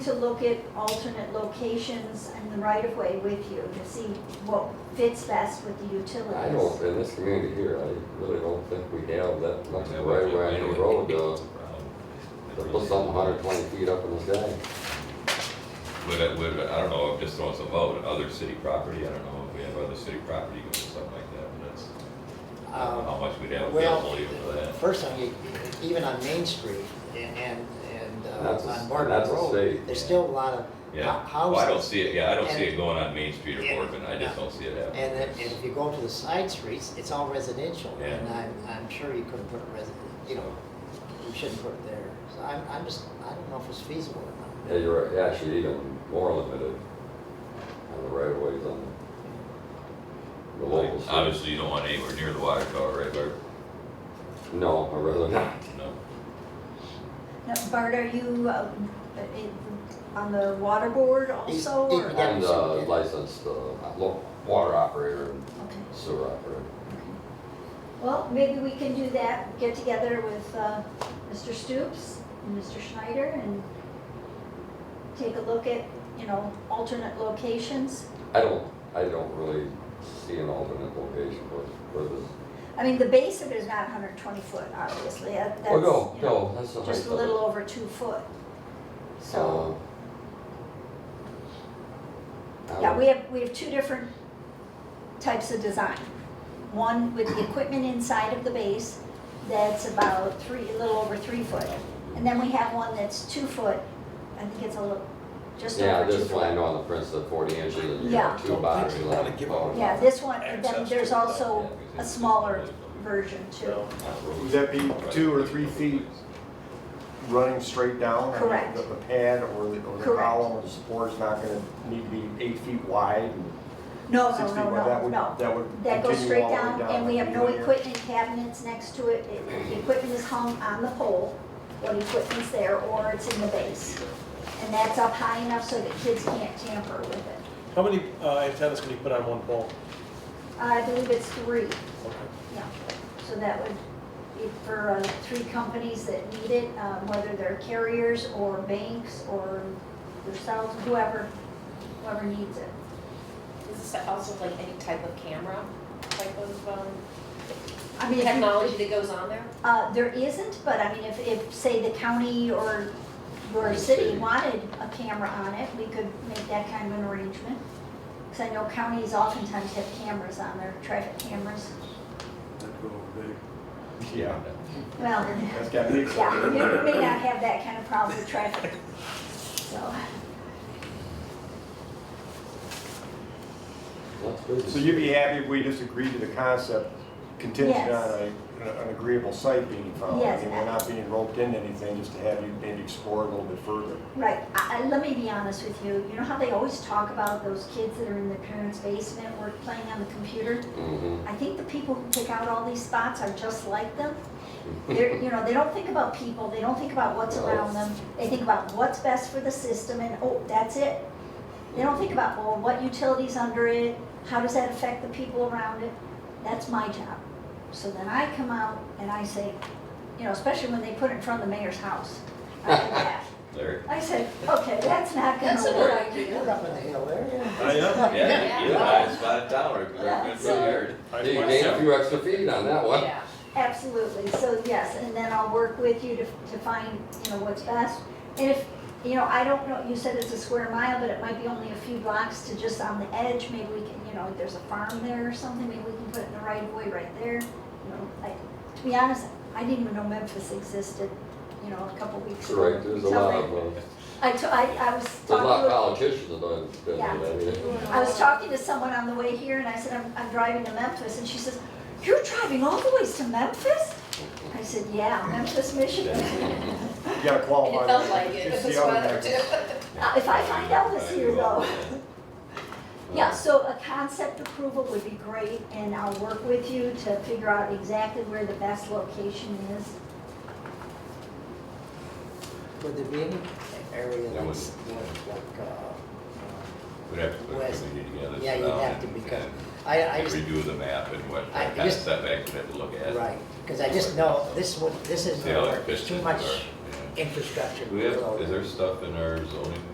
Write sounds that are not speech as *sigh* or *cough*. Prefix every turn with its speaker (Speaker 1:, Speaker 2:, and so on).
Speaker 1: to look at alternate locations and the right-of-way with you to see what fits best with the utilities.
Speaker 2: I don't, in this community here, I really don't think we have that much
Speaker 3: Yeah,
Speaker 2: right
Speaker 3: we-
Speaker 2: around
Speaker 3: we-
Speaker 2: the road, uh, to
Speaker 3: But
Speaker 2: put something hundred twenty feet up in the sky.
Speaker 3: it would, uh, I don't know, I'm just throwing some out, other city property, I don't know if we have other city property or something like that, but that's, how
Speaker 4: Um,
Speaker 3: much we'd have
Speaker 4: Well,
Speaker 3: availability for that.
Speaker 4: first thing, you- even on Main Street and, and and,
Speaker 2: That's a-
Speaker 4: uh, on Bartlett
Speaker 2: that's a
Speaker 4: Road,
Speaker 2: state.
Speaker 4: there's still a lot of hou-
Speaker 3: Yeah,
Speaker 4: houses.
Speaker 3: well, I don't see it, yeah, I don't see it
Speaker 4: and-
Speaker 3: going on Main Street or
Speaker 4: and-
Speaker 3: Bourbon, I just
Speaker 4: no.
Speaker 3: don't see it happening.
Speaker 4: And then, and if you go to the side streets, it's all residential,
Speaker 3: Yeah.
Speaker 4: and I'm, I'm sure you couldn't put a resi, you know, you shouldn't put it there. So I'm, I'm just, I don't know if it's feasible or not.
Speaker 2: Yeah, you're right, actually even more limited on the right of ways on the local
Speaker 3: Like,
Speaker 2: streets.
Speaker 3: Obviously, you don't want anywhere near the water tower, right, Barb?
Speaker 2: No, I really not.
Speaker 3: No,
Speaker 1: Now, Bart, are you um, in- on the water board
Speaker 4: He's-
Speaker 1: also?
Speaker 4: he-
Speaker 1: or-
Speaker 4: yeah.
Speaker 2: I'm the licensed, uh, lo- water operator and
Speaker 1: Okay.
Speaker 2: sewer operator.
Speaker 1: Well, maybe we can do that, get together with uh, Mr. Stoops and Mr. Schneider and take a look at, you know, alternate locations.
Speaker 2: I don't, I don't really see an alternate location for, for this.
Speaker 1: I mean, the base of it is not 120 foot, obviously. Uh, That's,
Speaker 2: Oh, no,
Speaker 1: you know,
Speaker 2: no, that's the height
Speaker 1: just a
Speaker 2: of it.
Speaker 1: little over two foot. So.
Speaker 2: Uh, I
Speaker 1: Yeah,
Speaker 2: would-
Speaker 1: we have, we have two different types of design. One with the equipment inside of the base, that's about three, a little over three foot. And then we have one that's two foot, I think it's a little, just
Speaker 2: Yeah,
Speaker 1: over two
Speaker 2: this one I
Speaker 1: foot.
Speaker 2: know on the Prince of forty inches and you
Speaker 1: Yeah.
Speaker 2: have two boxes left.
Speaker 1: Yeah, this one, and then
Speaker 3: Access
Speaker 1: there's
Speaker 3: to it,
Speaker 1: also
Speaker 3: yeah, because
Speaker 1: a
Speaker 3: it's-
Speaker 1: smaller version too.
Speaker 5: So,
Speaker 3: not roads.
Speaker 5: Would that be two or three feet running straight down? I mean,
Speaker 1: Correct.
Speaker 5: The the pad or the, or the
Speaker 1: Correct.
Speaker 5: column or the support's not gonna need to be eight feet wide and
Speaker 1: No,
Speaker 5: six
Speaker 1: Oh, no,
Speaker 5: feet wide?
Speaker 1: no,
Speaker 5: That
Speaker 1: no,
Speaker 5: would-
Speaker 1: no.
Speaker 5: That would
Speaker 1: That goes
Speaker 5: continue
Speaker 1: straight
Speaker 5: all the way down.
Speaker 1: down and we have no
Speaker 5: Linear.
Speaker 1: equipment cabinets next to it. It- The equipment is hung on the pole, what equipment's there, or it's in the base. And that's up high enough so that kids can't tamper with it.
Speaker 6: How many uh, antennas can you put on one pole?
Speaker 1: Uh, I believe it's three,
Speaker 6: Okay.
Speaker 1: yeah. So that would be for uh, three companies that need it, um, whether they're carriers or banks or yourselves, whoever, whoever needs it.
Speaker 7: Is this also like any type of camera, type of um,
Speaker 1: I mean, if you-
Speaker 7: technology that goes on there?
Speaker 1: Uh, there isn't, but I mean, if, if, say, the county or your
Speaker 2: Or
Speaker 1: city
Speaker 2: city.
Speaker 1: wanted a camera on it, we could make that kind of an arrangement. Because I know counties oftentimes have cameras on their traffic cameras.
Speaker 5: Yeah,
Speaker 1: Well,
Speaker 5: that's gotta be.
Speaker 1: yeah, you may not have that kind of problem with traffic, so.
Speaker 2: That's good.
Speaker 5: So you'd be happy if we just agreed to the concept contingent
Speaker 1: Yes.
Speaker 5: on a, an agreeable site being found?
Speaker 1: Yes.
Speaker 5: I mean, we're not being roped into anything, just to have you maybe explore a little bit further.
Speaker 1: Right, I, I, let me be honest with you, you know how they always talk about those kids that are in their parents' basement, work playing on the computer?
Speaker 2: Mhm.
Speaker 1: I think the people who pick out all these spots are just like them. They're, you know, they don't think about people, they don't think about what's around them, they think about what's best for the system and, oh, that's it. They don't think about, well, what utilities under it, how does that affect the people around it? That's my job. So then I come out and I say, you know, especially when they put it in front of the mayor's house. I do that.
Speaker 4: *laughs*
Speaker 3: Larry?
Speaker 1: I said, okay, that's not gonna
Speaker 7: That's a
Speaker 1: work.
Speaker 7: good idea.
Speaker 4: You're up in the hill there, yeah.
Speaker 6: I am.
Speaker 3: Yeah, you guys spotted town, or,
Speaker 1: Yeah, so-
Speaker 2: *laughs* Hey, You gained a few extra feet on that one.
Speaker 7: Yeah.
Speaker 1: Absolutely, so yes, and then I'll work with you to, to find, you know, what's best. And if, you know, I don't know, you said it's a square mile, but it might be only a few blocks to just on the edge, maybe we can, you know, if there's a farm there or something, maybe we can put it in the right of way right there. You know, I, to be honest, I didn't even know Memphis existed, you know, a couple weeks ago.
Speaker 2: Right, there's a
Speaker 1: until
Speaker 2: lot
Speaker 1: they-
Speaker 2: of, uh,
Speaker 1: I, to- I, I was
Speaker 2: there's a
Speaker 1: talking
Speaker 2: lot of
Speaker 1: with-
Speaker 2: politicians that don't, that
Speaker 1: Yeah.
Speaker 2: do that either.
Speaker 1: I was talking to someone on the way here and I said, I'm, I'm driving to Memphis. And she says, You're driving all the ways to Memphis? I said, Yeah, Memphis, Michigan.
Speaker 5: You gotta
Speaker 7: And
Speaker 5: qualify.
Speaker 7: it felt
Speaker 5: that.
Speaker 7: like *laughs* it,
Speaker 5: It's
Speaker 7: if
Speaker 5: the
Speaker 7: it's
Speaker 5: other guy.
Speaker 7: weather too. *laughs*
Speaker 1: Uh, If I find Elvis here though. *laughs* Yeah, so a concept approval would be great and I'll work with you to figure out exactly where the best location is.
Speaker 4: Would there be any area
Speaker 3: There
Speaker 4: that's, like, like, uh,
Speaker 3: We'd have to put a
Speaker 4: West.
Speaker 3: committee together.
Speaker 4: uh, yeah,
Speaker 3: sit
Speaker 4: you'd
Speaker 3: down
Speaker 4: have to,
Speaker 3: and-
Speaker 4: because
Speaker 3: and-
Speaker 4: I, I
Speaker 3: And
Speaker 4: just
Speaker 3: redo the map and what,
Speaker 4: I
Speaker 3: what kind of
Speaker 4: just-
Speaker 3: setbacks we have to look at.
Speaker 4: Right, because I just know this would, this isn't
Speaker 3: See how it
Speaker 4: gonna work,
Speaker 3: fits
Speaker 4: there's too
Speaker 3: into our-
Speaker 4: much
Speaker 3: yeah.
Speaker 4: infrastructure.
Speaker 3: Do we have,
Speaker 4: below
Speaker 3: is
Speaker 4: there.
Speaker 3: there stuff in our zoning